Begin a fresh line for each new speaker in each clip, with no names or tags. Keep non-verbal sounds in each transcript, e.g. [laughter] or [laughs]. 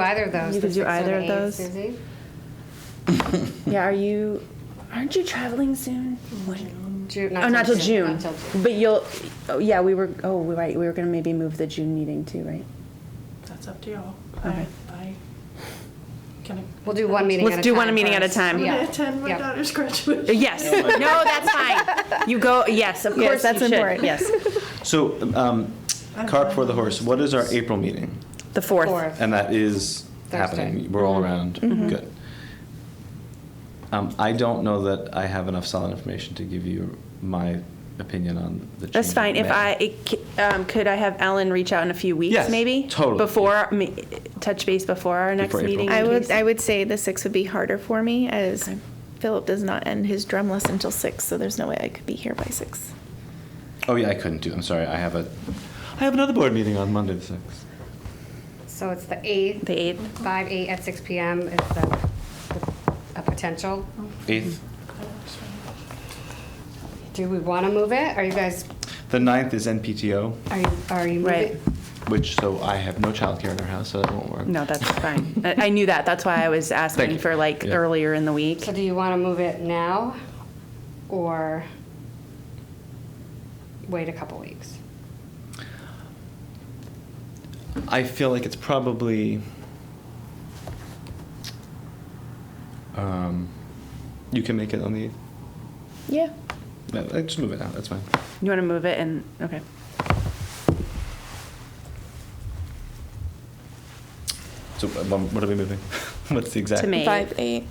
either of those.
You
the
could do
sixth or the
either of those.
eighth, Susie?
Yeah, are you? Aren't you traveling soon? What?
Ju-
Oh, not till June.
Not till Mm-hmm. June.
But you'll. Oh, yeah, we were. Oh, we right. We were gonna maybe move the June meeting too, right?
That's up to y'all.
Okay.
I, I can.
We'll do one meeting at a time.
Let's do one meeting at a
first.
time.
I'm
I'm
Yeah.
gonna attend my
Yep.
daughter's [laughs] graduation.
Yes.
Oh
no, that's fine. You go. [laughs] Yes, of
Yes,
course.
that's
you should.
important.
Yes,
So, um,
I'm
cart
fine
before the
with
horse,
this.
what is our April meeting?
the fourth.
Fourth.
And that is
Thursday.
happening, we're
Mm-hmm.
all around,
Mm-hmm.
good. Um, I don't know that I have enough solid information to give you my opinion on the change.
That's fine.
in
If
May.
I it, c- um, could, I have Ellen reach out in a few weeks,
Yes,
maybe
totally,
before me, touch base before our next
Before April.
meeting. in
I would,
case-
I would say the six would be harder for me as
Okay.
Philip does not end his drum lesson until six, so there's no way I could be here by six.
Oh, yeah, I couldn't do, I'm sorry, I have a, I have another board meeting on Monday the sixth.
So it's the eighth.
The eighth.
Five, eight at six PM is the, the- a potential.
Eighth,
Do we want to move it? Are you guys,
the ninth is NPTO,
are you, are you
Right.
moving?
which, so I have no childcare in our house, so that won't work.
No, that's fine. I, I knew that. That's why I was asking
you.
for like
Yeah.
earlier in the week.
So do you want to move it now or wait a couple weeks?
I feel like it's probably. Um, you can make it on the.
Yeah.
No, uh, just move it out. That's fine.
You want to move it and okay.
So uh, um, what are we moving? [laughs] What's the exact?
To May.
Five, eight.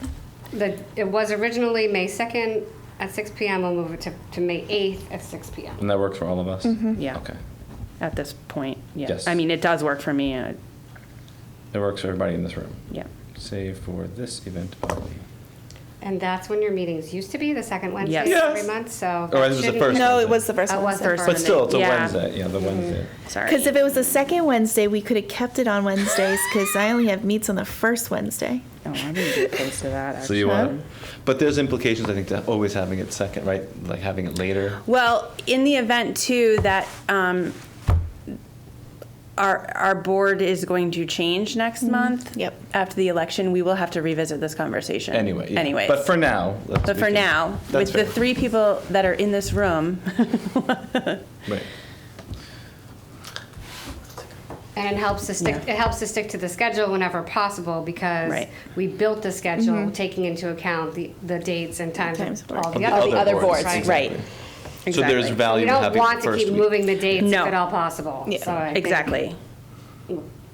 The, it was originally May second at six PM. We'll move it to, to May eighth at six PM.
And that works for all of us.
Yeah.
Okay.
At this point, yeah.
Yes.
I mean, it does work for me. Uh,
It works for everybody in this room,
yeah.
save for this event only.
And that's when your meetings used to be, the second Wednesday of
Yes.
every month, so.
Oh,
Or it was the
shouldn't-
first
No,
Wednesday.
it was the first
It
one.
was the first
But still, it's a
Yeah. Mm-hmm.
Wednesday. Yeah, the Wednesday.
Sorry.
Because if it was the second Wednesday, we could have kept it on Wednesdays because I only have meets on the first Wednesday.
oh, I didn't get close to that. Actually.
So you want, but there's implications I think to always having it second, right? Like having it later.
Well, in the event too that um, our our board is going to change next month.
Yep.
After the election, we will have to revisit this conversation.
Anyway. Yeah.
Anyways.
But for now. let's-
But
we
for
can-
now, with
that's
the
fair.
three people that are in this room, [laughs]
Right.
And it helps to stick, it helps to stick to the schedule whenever possible because
Right.
we built the schedule taking into account the, the dates and times
Times
of
of
all
work.
the
Of
other.
the other
people,
boards,
right?
right?
exactly.
Exactly.
So there's value
We
in
don't
having
want
it
to
first
keep
week.
moving the dates if
No.
at all possible.
Yeah.
So I think
exactly.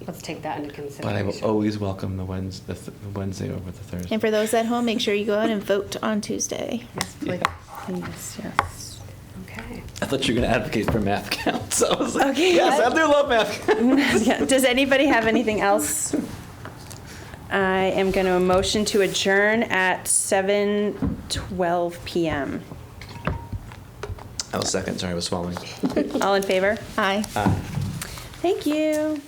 Let's take that into
But I will
consideration.
always welcome the Wednesday, the th- the Wednesday over the Thursday.
And for those at home, make sure you go out and vote on Tuesday.
Yes, please.
Yes, yes.
Okay.
I thought you were going to advocate for math [laughs] counts. I was like, yes, I do love math. counts."
Yeah. Does anybody have anything else? I am going to motion to adjourn at 7:12 p.m.
I was second. Sorry, I was swallowing.
All in favor?
Aye.
Thank you.